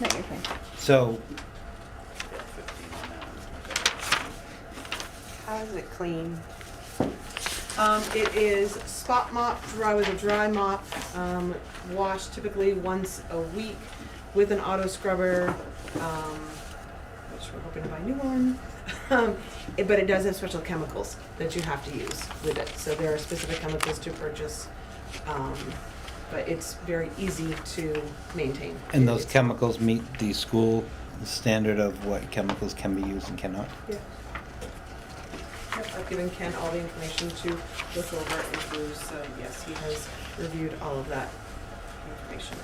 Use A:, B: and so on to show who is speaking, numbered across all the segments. A: Not your turn.
B: So,
C: How is it clean?
D: Um, it is spot mop, dry with a dry mop, um, washed typically once a week with an auto scrubber, um, which we're hoping to buy a new one. Um, it- but it does have special chemicals that you have to use with it, so there are specific chemicals to purchase. Um, but it's very easy to maintain.
B: and those
D: It's-
B: chemicals meet the school standard of what chemicals can be used and cannot?
D: Yeah. Yep, I've given Ken all the information to look over and through, so yes, he has reviewed all of that information.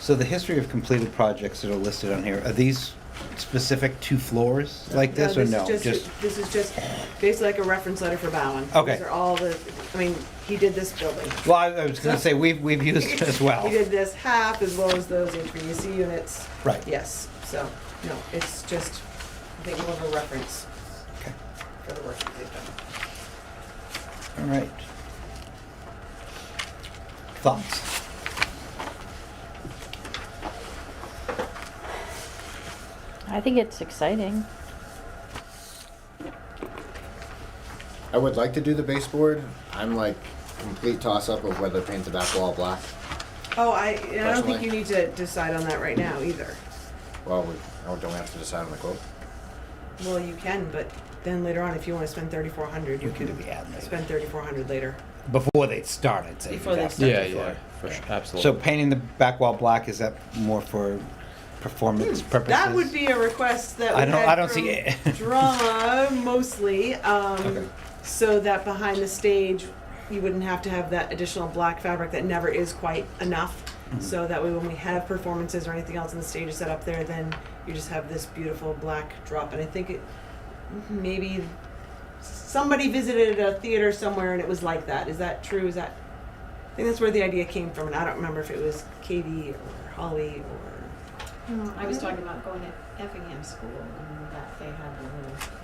B: So the history of completed projects that are listed on here, are these specific to floors like this or
D: is
B: no?
D: Just, this is just basically like a reference letter for Bowen.
B: Okay.
D: These are all the, I mean, he did this building.
B: Well, I I was gonna say, we've, we've used it as well.
D: He did this half as well as those HVAC units.
B: Right.
D: Yes, so, no, it's just, I think more of a reference
B: Okay.
D: for the work that they've done.
B: All right. Thoughts?
A: I think it's exciting.
E: I would like to do the baseboard. I'm like complete toss up of whether to paint the back wall black.
D: Oh, I, and I don't think
E: Personally.
D: you need to decide on that right now either.
E: Well, we oh, don't we have to decide on the quote.
D: Well, you can, but then later on, if you wanna spend thirty-four hundred, you
B: We can
D: can
B: do the ad later.
D: spend thirty-four hundred later.
B: Before they start, I'd say.
D: Before
B: you'd
D: they
B: have to-
D: start.
F: Yeah,
D: before.
F: yeah, for sure,
B: So
F: absolutely.
B: painting the back wall black, is that more for performance purposes?
D: Hmm, That would be a request that we
B: I don't-
D: had
B: I don't
D: from
B: see it.
D: drama mostly, um,
B: Okay.
D: so that behind the stage you wouldn't have to have that additional black fabric that never is quite enough. So that way, when we have performances or anything else, and the stage is set up there, then you just have this beautiful black drop. And I think it maybe somebody visited a theater somewhere and it was like that. Is that true? Is that I think that's where the idea came from, and I don't remember if it was Katie or Holly or
G: No, Uh, I was talking about going to Effingham School and that they had a little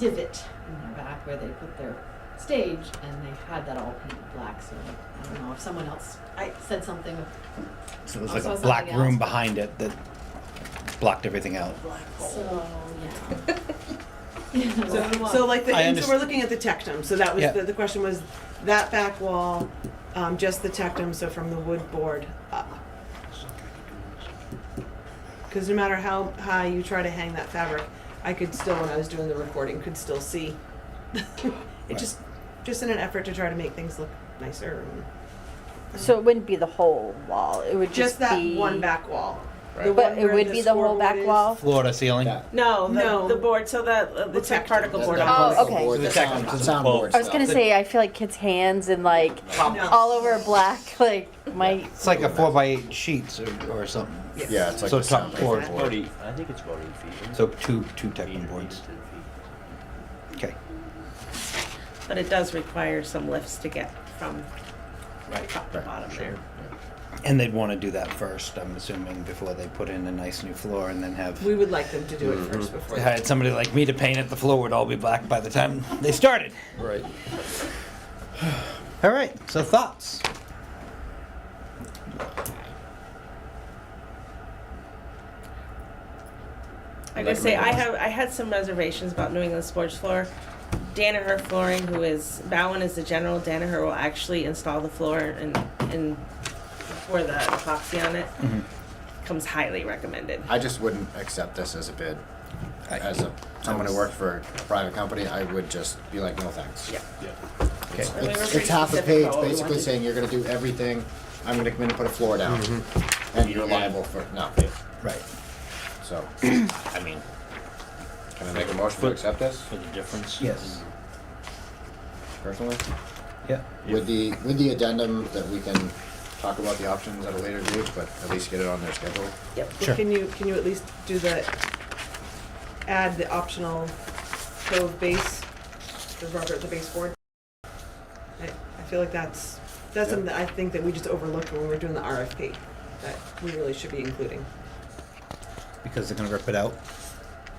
G: divot in their back where they put their stage and they had that all painted black, so I don't know if someone else I said something
B: So there's
G: I
B: like
G: saw
B: a
G: something
B: black room
G: else.
B: behind it that blocked everything out.
G: so yeah. Yeah,
D: So,
G: well,
D: so like the,
B: I
D: and so we're
B: underst-
D: looking at the tectum, so that was,
B: Yeah.
D: the, the question was, that back wall, um, just the tectum, so from the wood board up. Cause no matter how high you try to hang that fabric, I could still, when I was doing the recording, could still see. It
B: Right.
D: just, just in an effort to try to make things look nicer,
A: So it wouldn't be the whole wall. It would just,
D: just that
A: be
D: one back wall. The
F: Right.
A: But
D: one
A: it
D: where
A: would be the whole
D: scoreboard
A: back
D: is.
A: wall.
B: Floor to ceiling?
E: That-
H: No, the,
D: No.
H: the board. So that uh, looks like
D: tectum.
H: particle
E: that-
H: board.
E: that
A: Oh,
E: particle
A: okay.
E: board,
B: So the
E: the
B: tech-
E: sound,
B: so
E: the
B: the
E: sound
B: quote.
E: board
A: I was gonna
E: stuff.
A: say I feel like kids' hands and like
D: No.
A: all over black, like my
B: It's like a four by eight sheets or, or something.
D: Yes.
E: Yeah, it's like
B: So
E: the
B: top
E: sound
B: floor.
E: board.
F: About eight, I think it's about eight feet. isn't it?
B: So two, two technical
F: Eight or eight
B: boards.
F: to ten feet.
B: Okay.
H: But it does require some lifts to get from top to
E: Right,
H: bottom there.
B: And they'd want to do that first, I'm assuming, before they put in a nice new floor and then have
D: We would like them to do it first
B: Mm-hmm.
D: before. that.
B: had somebody like me to paint it, the floor would all be black by the time they started.
F: Right.
B: All right. So thoughts?
H: I gotta say, I have, I had some reservations about New England sports floor. Danaher Flooring, who is, Bowen is the general, Danaher will actually install the floor and, and pour the epoxy on it. Comes highly recommended.
E: I just wouldn't accept this as a bid. As a someone who worked for a private company, I would just be like, no thanks.
H: Yeah.
F: Yeah.
B: Okay.
H: And we were
E: It's,
H: pretty
E: it's half a
H: specific
E: page,
H: about what we
E: basically
H: wanted.
E: saying you're gonna do everything. I'm gonna come in and put a floor down, and you're liable for no.
B: Right.
E: So,
F: I mean,
E: can I make a motion to accept this
F: for the difference.
B: Yes.
E: personally?
B: Yeah.
E: With the, with the addendum that we can talk about the options at a later date, but at least get it on their schedule.
D: Yep, well,
B: Sure.
D: can you, can you at least do the, add the optional cove base, the rubber, the baseboard? I, I feel like that's, that's something that I think that we just overlooked when we were doing the RFP, that we really should be including.
B: Because they're gonna rip it out.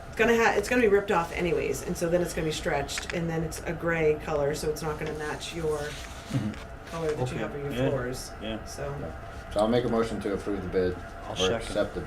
D: It's gonna ha, it's gonna be ripped off anyways, and so then it's gonna be stretched, and then it's a gray color, so it's not gonna match your color that you have on your
F: Mm-hmm. Okay, yeah.
D: floors,
F: Yeah.
D: so.
E: So I'll make a motion to approve the bid
F: I'll
E: or
F: second.
E: accept the